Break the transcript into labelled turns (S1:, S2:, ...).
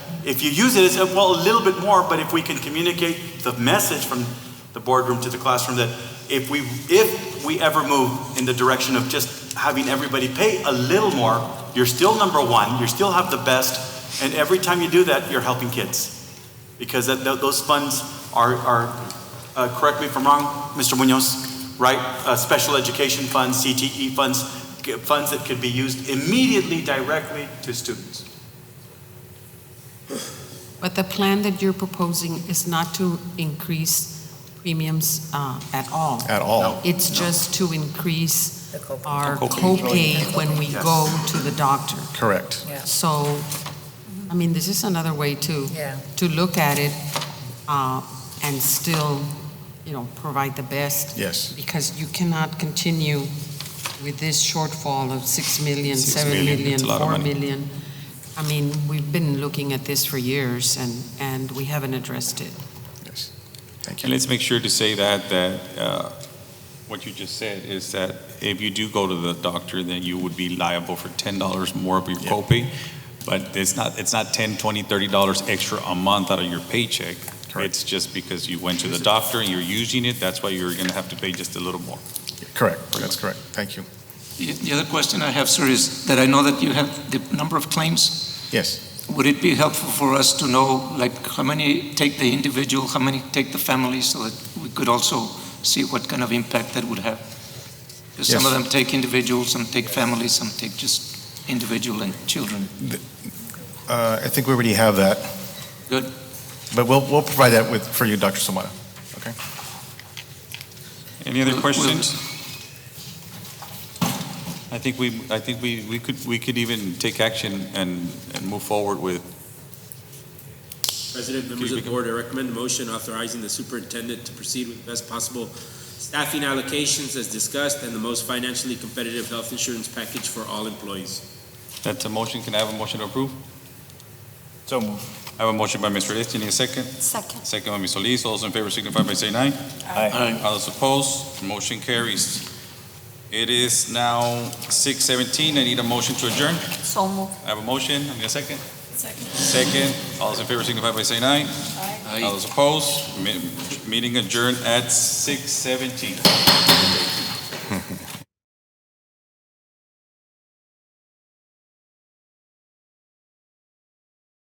S1: if you use it as, a- well, a little bit more, but if we can communicate the message from the boardroom to the classroom that if we, if we ever move in the direction of just having everybody pay a little more, you're still number one, you still have the best, and every time you do that, you're helping kids. Because that, tho- those funds are, are, uh, correct me if I'm wrong, Mr. Munoz, right? Uh, special education funds, CTE funds, g- funds that could be used immediately directly to students.
S2: But the plan that you're proposing is not to increase premiums uh, at all.
S3: at all.
S2: It's just to increase
S4: The co-
S2: our
S3: The copay.
S2: copay when we
S1: Yes.
S2: go to the doctor.
S3: Correct.
S4: Yeah.
S2: So, I mean, this is another way to,
S4: Yeah.
S2: to look at it uh, and still, you know, provide the best.
S3: Yes.
S2: Because you cannot continue with this shortfall of 6 million,
S3: Six
S2: 7
S3: million,
S2: million,
S3: it's a lot of
S2: 4
S3: money.
S2: million. I mean, we've been looking at this for years and, and we haven't addressed it.
S3: Yes. Thank
S5: And
S3: you.
S5: let's make sure to say that, that uh, what you just said is that if you do go to the doctor, then you would be liable for $10 more of your
S3: Yeah.
S5: copay. But it's not, it's not 10, 20, 30 dollars extra a month out of your paycheck.
S3: Correct.
S5: It's just because you went to the doctor and you're using it, that's why you're going to have to pay just a little more.
S3: Correct. That's correct. Thank you.
S6: The the other question I have, sir, is that I know that you have the number of claims.
S3: Yes.
S6: Would it be helpful for us to know, like, how many take the individual, how many take the family, so that we could also see what kind of impact that would have? Because some of
S3: Yes.
S6: them take individuals, some take families, some take just individual and children.
S3: Uh, I think we already have that.
S6: Good.
S3: But we'll, we'll provide that with, for you, Dr. Somada.
S5: Any other
S6: Will- will-
S5: questions? I think we, I think we, we could, we could even take action and, and move forward with,
S7: President, members of
S5: Excuse
S7: the
S5: me.
S7: board, I recommend a motion authorizing the superintendent to proceed with best possible staffing allocations as discussed and the most financially competitive health insurance package for all employees.
S5: that's a motion, can I have a motion to approve?
S3: So move.
S5: I have a motion by Mr. Este, need a second?
S8: Second.
S5: Second by Ms. Solis. All those in favor signify by saying aye.
S6: Aye.
S5: All those opposed, motion carries. It is now six seventeen. I need a motion to adjourn.
S8: So moved.
S5: I have a motion. I need a second. Second. Second. All those in favor signify by saying aye.
S6: Aye.
S5: All those opposed, Me- meeting adjourned at six seventeen.